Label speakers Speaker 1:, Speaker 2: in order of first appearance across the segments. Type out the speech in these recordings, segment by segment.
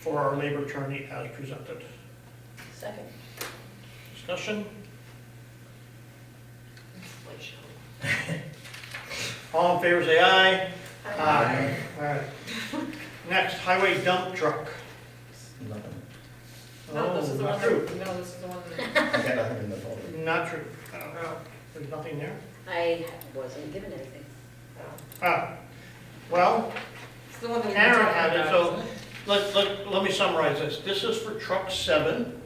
Speaker 1: for our labor attorney as presented.
Speaker 2: Second.
Speaker 1: Discussion? All in favor, say aye. All right. Next, highway dump truck.
Speaker 3: Nothing.
Speaker 2: No, this is the
Speaker 1: Oh,
Speaker 2: one,
Speaker 1: Not true.
Speaker 2: that- no, this is the one. that-
Speaker 3: I got nothing in the folder.
Speaker 1: Not true. Uh,
Speaker 2: Oh.
Speaker 1: There's nothing there?
Speaker 4: I wasn't given anything.
Speaker 1: Ah, well,
Speaker 2: It's the one that we were
Speaker 1: Karen
Speaker 2: talking
Speaker 1: had it,
Speaker 2: about,
Speaker 1: so-
Speaker 2: isn't it?
Speaker 1: let, let, let me summarize this. This is for truck seven,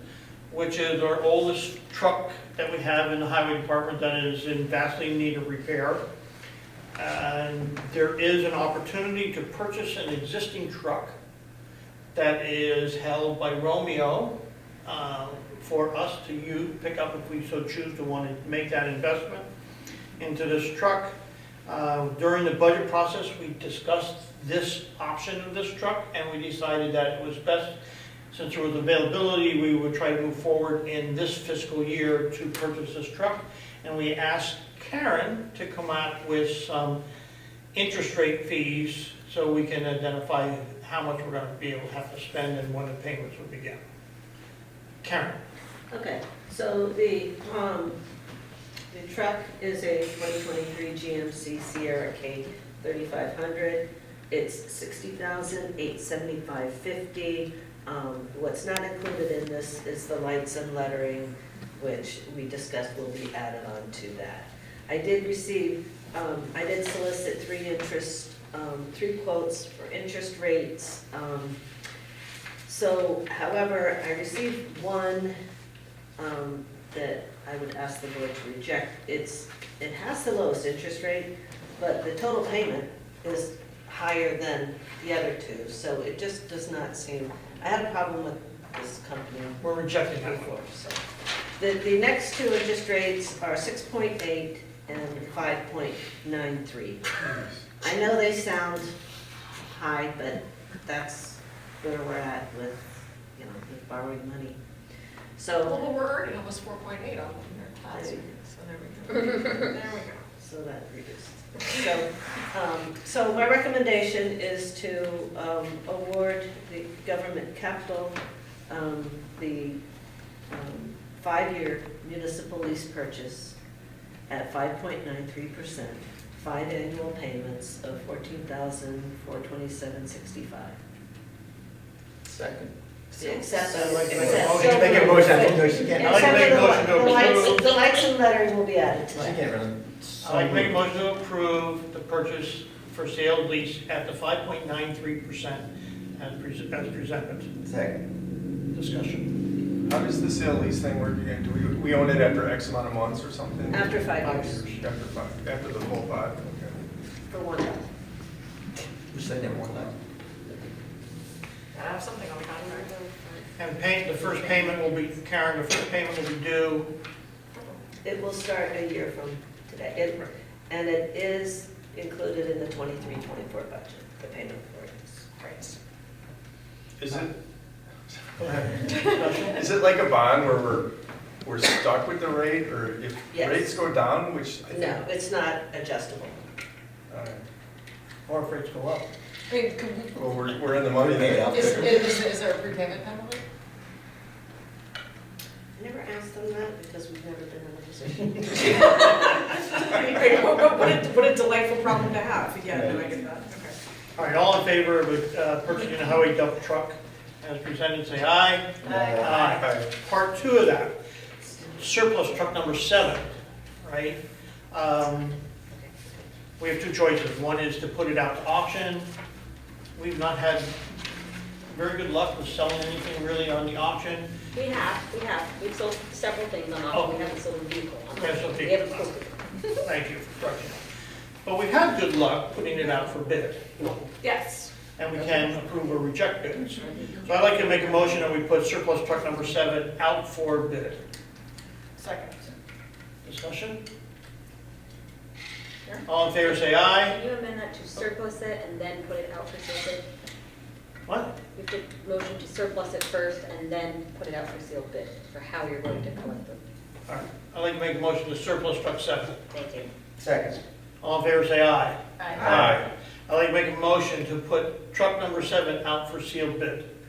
Speaker 1: which is our oldest truck that we have in the highway department that is in vastly need of repair. And there is an opportunity to purchase an existing truck that is held by Romeo uh, for us to use, pick up if we so choose to want to make that investment into this truck. Uh, During the budget process, we discussed this option of this truck, and we decided that it was best, since there was availability, we would try to move forward in this fiscal year to purchase this truck. And we asked Karen to come out with some interest rate fees so we can identify how much we're gonna be able to have to spend and when the payments will begin. Karen,
Speaker 5: Okay, so the, um, the truck is a 2023 GMC Sierra K 3500. It's 60875 Um, What's not included in this is the lights and lettering, which we discussed will be added on to that. I did receive, um, I did solicit three interest, um, three quotes for interest rates. Um, So however, I received one um, that I would ask the board to reject. It's, it has the lowest interest rate, but the total payment is higher than the other two, so it just does not seem, I had a problem with this company
Speaker 1: we're rejecting that one.
Speaker 5: before, so. The, the next two interest rates are six point eight and five point nine three. I know they sound high, but that's where we're at with, you know, with borrowing money. So.
Speaker 2: Well, we're already almost four point eight on their class, so there we go. There we go.
Speaker 5: So that reduced. So, um, so my recommendation is to, um, award the government capital, um, the, um, five-year municipal lease purchase at five point nine three percent, five annual payments of fourteen thousand, four twenty-seven, sixty-five.
Speaker 3: Second.
Speaker 5: Except.
Speaker 1: I'd like to make a
Speaker 5: except-
Speaker 1: motion.
Speaker 3: Make a motion, no, she
Speaker 1: I'd like to
Speaker 5: Except
Speaker 1: make
Speaker 3: can't.
Speaker 1: a
Speaker 5: for
Speaker 1: motion to
Speaker 5: the li- the
Speaker 1: approve.
Speaker 5: lights, the lights and lettering will be added
Speaker 3: She
Speaker 5: to that.
Speaker 3: can't really.
Speaker 1: I'd like to make a motion to approve the purchase for sale lease at the five point nine three percent as pres- as presented.
Speaker 3: Second.
Speaker 1: Discussion.
Speaker 6: How does the sale lease thing work again? Do we, we own it after X amount of months or something?
Speaker 5: After five
Speaker 1: Five
Speaker 5: years,
Speaker 1: years.
Speaker 6: After five, after the whole five, okay.
Speaker 5: for one dollar.
Speaker 3: We said that one time.
Speaker 2: I have something on the contract.
Speaker 1: And pay, the first payment will be, Karen, the first payment will be due,
Speaker 5: It will start a year from today, It- and it is included in the 23-24 budget, the payment for it.
Speaker 2: Right.
Speaker 6: Is it,
Speaker 1: go ahead, discussion.
Speaker 6: is it like a bond where we're, we're stuck with the rate, or if
Speaker 5: Yes.
Speaker 6: rates go down, which I think.
Speaker 5: No, it's not adjustable.
Speaker 6: all right.
Speaker 1: Or if rates go up.
Speaker 2: I mean, could
Speaker 6: Well, we're, we're in the money
Speaker 3: Yeah.
Speaker 6: there.
Speaker 2: we, is, is, is there a prepayment penalty?
Speaker 5: I never asked them that because we've never been in a position.
Speaker 2: What, what- what a, what a delightful problem to have, yeah, no, I get that, okay.
Speaker 1: All right, all in favor of uh, purchasing a highway dump truck as presented, say aye.
Speaker 6: Aye.
Speaker 1: Part two of that, surplus truck number seven, right? Um, We have two choices. One is to put it out to auction. We've not had very good luck with selling anything really on the auction.
Speaker 4: We have, we have, we've sold several things on auction, we haven't sold a vehicle on
Speaker 1: Okay, so
Speaker 4: auction. We
Speaker 1: people-
Speaker 4: haven't sold it.
Speaker 1: Thank you for correcting. But we have good luck putting it out for bid.
Speaker 2: Yes.
Speaker 1: and we can approve or reject bids. So I'd like to make a motion that we put surplus truck number seven out for bid.
Speaker 2: Second.
Speaker 1: Discussion?
Speaker 4: Yeah.
Speaker 1: All in favor, say aye.
Speaker 4: Can you amend that to surplus it and then put it out for sale
Speaker 1: What?
Speaker 4: bid? You have to motion to surplus it first and then put it out for sealed bid, for how you're going to collect them.
Speaker 1: All right, I'd like to make a motion to surplus truck seven.
Speaker 4: Thank you.
Speaker 3: Second.
Speaker 1: All in favor, say aye.
Speaker 2: Aye.
Speaker 1: I'd like to make a motion to put truck number seven out for sealed bid.